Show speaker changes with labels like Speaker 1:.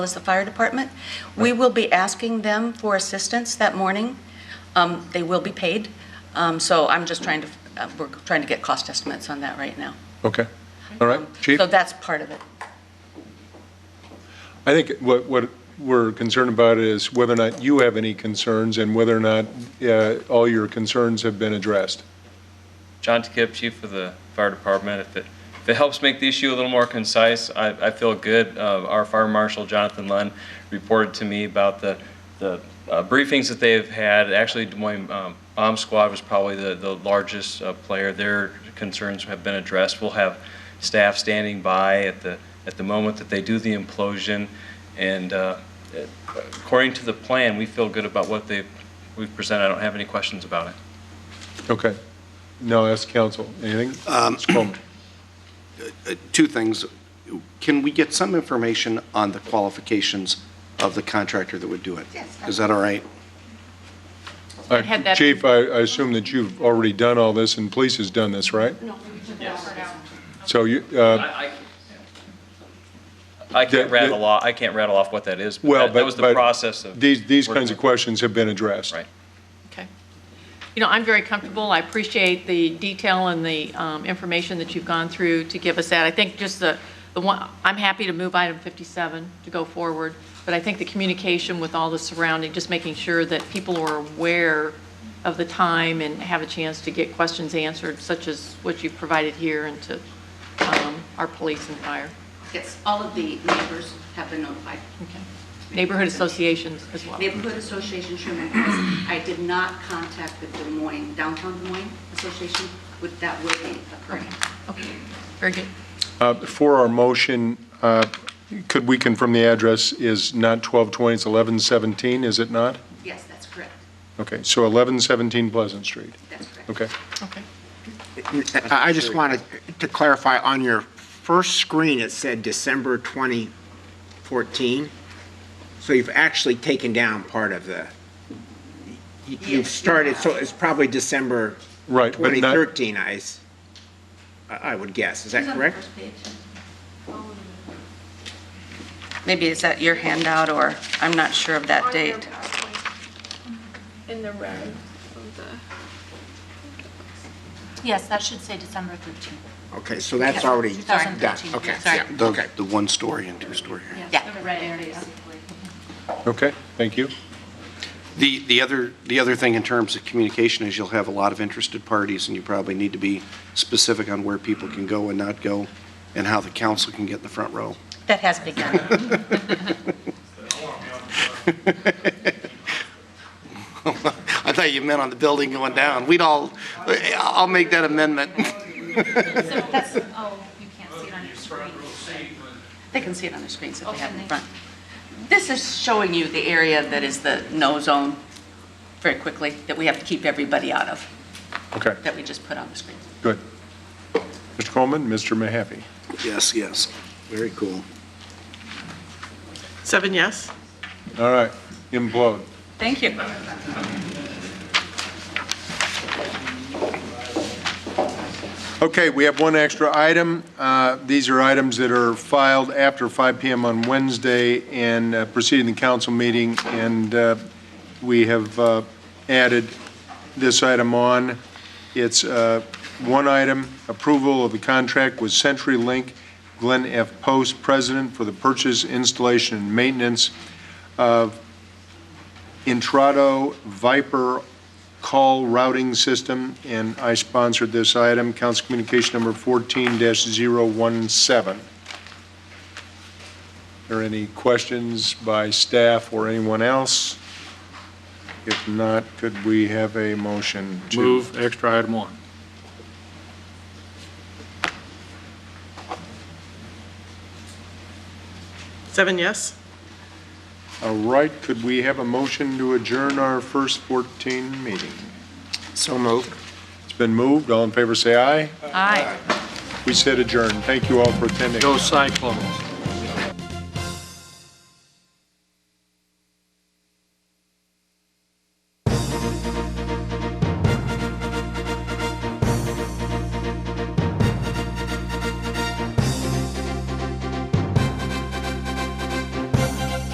Speaker 1: as the fire department. We will be asking them for assistance that morning. Um, They will be paid, Um, so I'm just trying to, uh, we're trying to get cost estimates on that right now.
Speaker 2: Okay, all right, Chief?
Speaker 1: So that's part of it.
Speaker 2: I think what, what we're concerned about is whether or not you have any concerns and whether or not uh, all your concerns have been addressed.
Speaker 3: John Takip, Chief of the Fire Department. If it, if it helps make the issue a little more concise, I, I feel good. Uh, Our Fire Marshal, Jonathan Lund, reported to me about the, the uh, briefings that they've had. Actually, Des Moines um, Bomb Squad was probably the, the largest uh, player. Their concerns have been addressed. We'll have staff standing by at the, at the moment that they do the implosion. And uh, according to the plan, we feel good about what they, we've presented. I don't have any questions about it.
Speaker 2: Okay. Now ask counsel, anything? Ms. Coleman?
Speaker 4: two things. Can we get some information on the qualifications of the contractor that would do it?
Speaker 1: Yes.
Speaker 4: Is that all right?
Speaker 2: Uh,
Speaker 5: had that-
Speaker 2: Chief, I, I assume that you've already done all this and police has done this, right? No. So you, uh,
Speaker 3: I can't
Speaker 2: The- the-
Speaker 3: rattle off, I can't rattle off what that is,
Speaker 2: well,
Speaker 3: but
Speaker 2: but.
Speaker 3: that- that was the
Speaker 2: but
Speaker 3: process of.
Speaker 2: These, these
Speaker 3: working
Speaker 2: kinds of
Speaker 3: with-
Speaker 2: questions have been addressed.
Speaker 3: Right.
Speaker 5: Okay. You know, I'm very comfortable. I appreciate the detail and the um, information that you've gone through to give us that. I think just the, the one, I'm happy to move item 57 to go forward, but I think the communication with all the surrounding, just making sure that people are aware of the time and have a chance to get questions answered, such as what you've provided here and to um, our police and fire.
Speaker 6: Yes, all of the neighbors have been notified.
Speaker 5: Okay. Neighborhood associations as well.
Speaker 6: Neighborhood Association Sherman Oaks, I did not contact the Des Moines, Downtown Des Moines Association, with that will be occurring.
Speaker 5: Okay. Very good.
Speaker 2: Uh, For our motion, uh, could we confirm the address is not 1220, it's 1117, is it not?
Speaker 6: Yes, that's correct.
Speaker 2: Okay, so 1117 Pleasant Street.
Speaker 6: That's correct.
Speaker 2: Okay.
Speaker 5: Okay.
Speaker 7: I I just wanted to clarify, on your first screen, it said December 2014. So you've actually taken down part of the, you- you've started, so it's probably December
Speaker 2: Right, but not-
Speaker 7: 2013, I, s- I- I would guess. Is that correct?
Speaker 1: Maybe is that your handout, or I'm not sure of that
Speaker 8: on their
Speaker 1: date.
Speaker 8: PowerPoint, In the red of the.
Speaker 9: Yes, that should say December 13th.
Speaker 7: Okay, so that's already done.
Speaker 9: 2013,
Speaker 7: Okay,
Speaker 9: sorry.
Speaker 7: yeah,
Speaker 4: The-
Speaker 7: okay.
Speaker 4: The one story and two story.
Speaker 9: Yeah. The red area.
Speaker 2: Okay, thank you.
Speaker 4: The, the other, the other thing in terms of communication is you'll have a lot of interested parties and you probably need to be specific on where people can go and not go and how the council can get in the front row.
Speaker 1: That has begun.
Speaker 4: I thought you meant on the building going down. We'd all, I'll make that amendment.
Speaker 9: So that's, oh, you can't see it on your screen.
Speaker 1: They can see it on the screens if they have it in
Speaker 9: Okay.
Speaker 1: front. This is showing you the area that is the no zone, very quickly, that we have to keep everybody out of,
Speaker 2: Okay,
Speaker 1: that we just put on the screen.
Speaker 2: good. Mr. Coleman, Mr. Mahaffey.
Speaker 4: Yes, yes. Very cool.
Speaker 10: Seven yes.
Speaker 2: All right, implode.
Speaker 1: Thank you.
Speaker 2: Okay, we have one extra item. Uh, These are items that are filed after 5 PM on Wednesday and uh, preceding the council meeting, and uh, we have uh, added this item on. It's uh, one item, approval of the contract with CenturyLink Glenn F. Post, President, for the purchase, installation, and maintenance of Intrado Viper call routing system, and I sponsored this item, Council Communication Number 14-017. Are there any questions by staff or anyone else? If not, could we have a motion to?
Speaker 11: Move extra item one.
Speaker 10: Seven yes.
Speaker 2: All right, could we have a motion to adjourn our first 14 meeting?
Speaker 7: So moved.
Speaker 2: It's been moved, all in favor say aye.
Speaker 1: Aye.
Speaker 2: We said adjourn. Thank you all for attending.
Speaker 11: Go Cyclones.